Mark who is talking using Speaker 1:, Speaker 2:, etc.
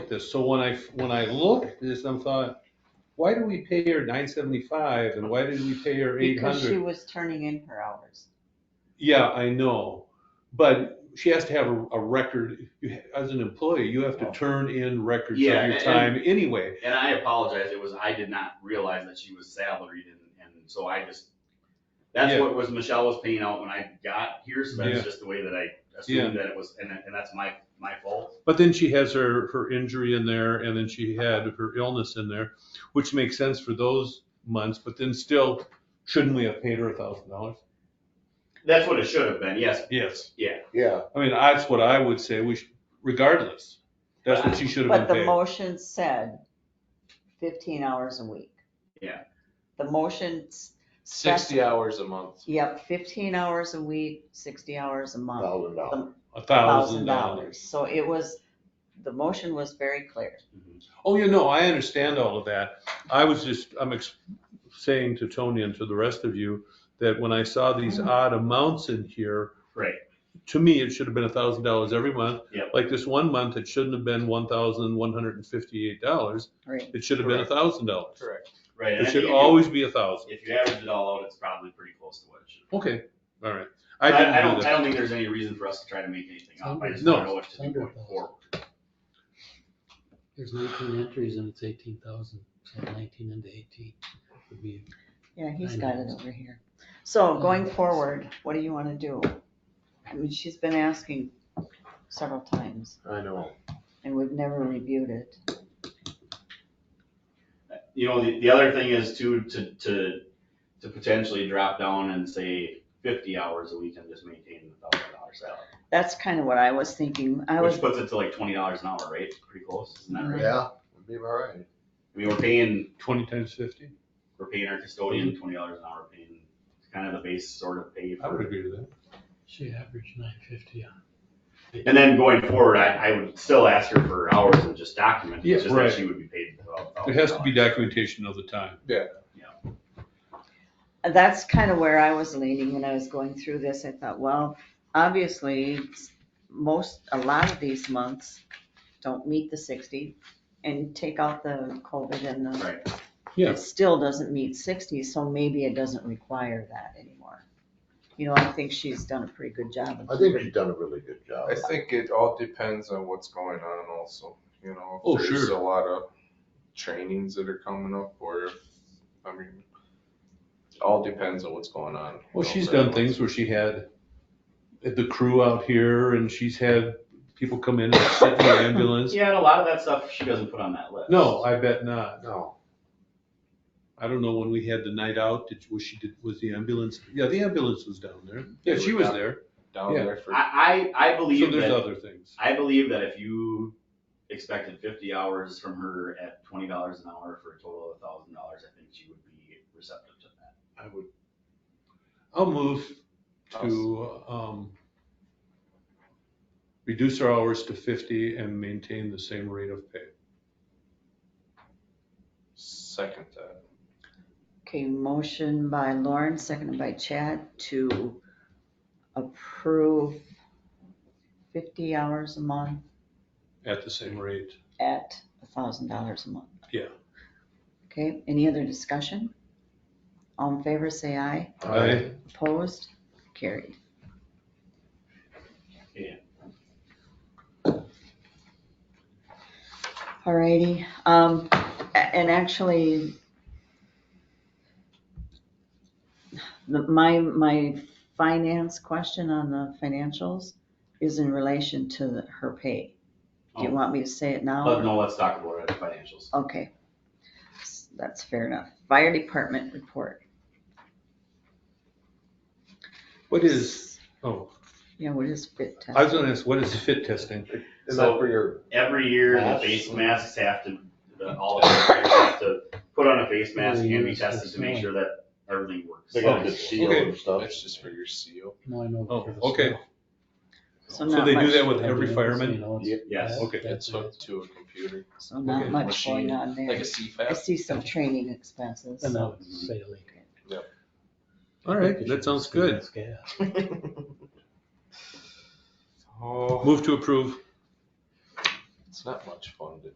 Speaker 1: this. So when I, when I looked at this, I'm thought, why do we pay her nine seventy-five and why did we pay her eight
Speaker 2: Because she
Speaker 1: hundred?
Speaker 2: was turning in her hours.
Speaker 1: Yeah, I know, but she has to have a, a record, You ha- as an employee, you have to turn in records of
Speaker 3: Oh. Yeah,
Speaker 1: your
Speaker 3: and-
Speaker 1: time anyway.
Speaker 3: And I apologize, it was, I did not realize that she was salaried and, and so I just, that's
Speaker 1: Yeah.
Speaker 3: what was, Michelle was paying out when I got here, so
Speaker 1: Yeah.
Speaker 3: that's just the way that I assumed that it was, and, that- and that's my, my fault.
Speaker 1: But then she has her, her injury in there and then she had her illness in there, which makes sense for those months, but then still, shouldn't we have paid her a thousand dollars?
Speaker 3: That's what it should have been, yes,
Speaker 1: Yes.
Speaker 4: Yeah,
Speaker 1: I mean, that's what I would say, we should, regardless, that's what she should have
Speaker 2: But the
Speaker 1: been paid.
Speaker 2: motion said fifteen hours a week.
Speaker 3: Yeah.
Speaker 2: The motion. s-
Speaker 5: sixty
Speaker 2: spec-
Speaker 5: hours a month.
Speaker 2: Yep, fifteen hours a week, sixty hours a month.
Speaker 4: thousand dollars.
Speaker 1: A thousand dollars.
Speaker 2: So it was, the motion was very clear.
Speaker 1: Oh, you know, I understand all of that. I was just, I'm ex- saying to Tony and to the rest of you that when I saw these odd amounts in here.
Speaker 3: Mm-hmm. Right.
Speaker 1: To me, it should have been a thousand dollars every month.
Speaker 3: Yep.
Speaker 1: Like this one month, it shouldn't have been one thousand one hundred and fifty-eight dollars.
Speaker 2: Right.
Speaker 1: It should have been a
Speaker 3: Correct.
Speaker 1: thousand dollars.
Speaker 5: Correct.
Speaker 3: right. and
Speaker 1: It
Speaker 3: I
Speaker 1: should
Speaker 3: think if you-
Speaker 1: always be a thousand.
Speaker 3: If you average it all out, it's probably pretty close to what it should. be.
Speaker 1: Okay, all right.
Speaker 3: I,
Speaker 1: I didn't
Speaker 3: I
Speaker 1: do
Speaker 3: don't,
Speaker 1: that.
Speaker 3: I don't think there's any reason for us to try to make anything up, I just
Speaker 1: No.
Speaker 3: don't know what to do going forward.
Speaker 6: There's nineteen entries and it's eighteen thousand, so nineteen into eighteen would be.
Speaker 2: Yeah, he's
Speaker 6: I
Speaker 2: got
Speaker 6: know.
Speaker 2: it over here. So going forward, what do you want to do? I mean, she's been asking several times
Speaker 4: I know.
Speaker 2: and we've never reviewed it.
Speaker 3: you know, the, the other thing is to, to, to, to potentially drop down and say fifty hours a week and just maintain the thousand dollar salary.
Speaker 2: That's kind of what I was thinking. I was,
Speaker 3: Which puts it to like twenty dollars an hour, right? Pretty close, isn't that right?
Speaker 4: Yeah, would be all right.
Speaker 3: I mean, we're paying,
Speaker 1: Twenty times fifty?
Speaker 3: we're paying our custodian twenty dollars an hour, paying kind of the base sort of pay
Speaker 1: I would
Speaker 3: for.
Speaker 1: agree to that.
Speaker 6: She averaged nine fifty on.
Speaker 3: And then going forward, I, I would still ask her for hours and just document, it.
Speaker 1: Yeah,
Speaker 3: it's just
Speaker 1: right.
Speaker 3: that she would be paid twelve thousand.
Speaker 1: There has to be documentation of the time.
Speaker 2: that's kind of where I was leaning when I was going through this. I thought, well, obviously, s- most, a lot of these months don't meet the sixty and take out the COVID and the.
Speaker 3: Right.
Speaker 1: Yeah.
Speaker 2: It still doesn't meet sixty, so maybe it doesn't require that anymore. You know, I think she's done a pretty good job.
Speaker 4: I think you've done a really good job.
Speaker 7: I think it all depends on what's going on also, you know,
Speaker 1: Oh,
Speaker 7: if there's
Speaker 1: sure.
Speaker 7: a lot of trainings that are coming up or if, I mean, it all depends on what's going on. you
Speaker 1: Well,
Speaker 7: know,
Speaker 1: she's
Speaker 7: for
Speaker 1: done
Speaker 7: everyone.
Speaker 1: things where she had the crew out here and she's had people come in and sit in the ambulance.
Speaker 3: Yeah, and a lot of that stuff she doesn't put on that list.
Speaker 1: No, I bet not.
Speaker 4: No,
Speaker 1: I don't know when we had the night out, did, was she, did, was the ambulance, yeah, the ambulance was down there. Yeah, she was there.
Speaker 7: Down
Speaker 1: Yeah.
Speaker 7: there for,
Speaker 3: I, I, I
Speaker 1: So
Speaker 3: believe that.
Speaker 1: there's other things.
Speaker 3: I believe that if you expected fifty hours from her at twenty dollars an hour for a total of thousand dollars, I think she would be receptive to that.
Speaker 1: I would. I'll move to, um, reduce our hours to fifty and maintain the same rate of pay.
Speaker 7: second that.
Speaker 2: Okay, motion by Lauren, seconded by Chad to approve fifty hours a month
Speaker 1: At the same rate.
Speaker 2: at a thousand dollars a month.
Speaker 1: Yeah.
Speaker 2: Okay, any other discussion? All in favor, say aye.
Speaker 1: I,
Speaker 2: Opposed? Carried. Alrighty, um, a- and actually, the- my, my finance question on the financials is in relation to the- her pay. Do you
Speaker 3: Oh.
Speaker 2: want me to say it now?
Speaker 3: But
Speaker 2: or-
Speaker 3: no, let's talk about it, financials.
Speaker 2: Okay. That's fair enough. Fire department report.
Speaker 1: what is, oh,
Speaker 2: Yeah, what is fit test?
Speaker 1: I was gonna ask, what is fit testing?
Speaker 4: is
Speaker 3: So-
Speaker 4: that for your,
Speaker 3: Every year, the
Speaker 4: Masks.
Speaker 3: face masks have to, the, all of them have to put on a face mask and be tested to make sure that everything works.
Speaker 4: they got the seal
Speaker 1: Okay.
Speaker 4: and stuff?
Speaker 7: That's just for your seal.
Speaker 6: No, I know.
Speaker 1: Oh,
Speaker 6: for the
Speaker 1: okay.
Speaker 6: snow.
Speaker 1: So
Speaker 2: not
Speaker 1: they do
Speaker 2: much-
Speaker 1: that with every fireman?
Speaker 3: Yes.
Speaker 1: Okay.
Speaker 7: It's hooked to a computer.
Speaker 2: So not
Speaker 1: Okay.
Speaker 2: much
Speaker 7: Machine.
Speaker 2: going on
Speaker 7: Like a
Speaker 2: there. I
Speaker 7: CFAT.
Speaker 2: see some training expenses.
Speaker 6: And that would say a leak.
Speaker 1: All right, that sounds good.
Speaker 6: Yeah.
Speaker 7: Oh,
Speaker 1: Move to approve.
Speaker 7: it's not much fun to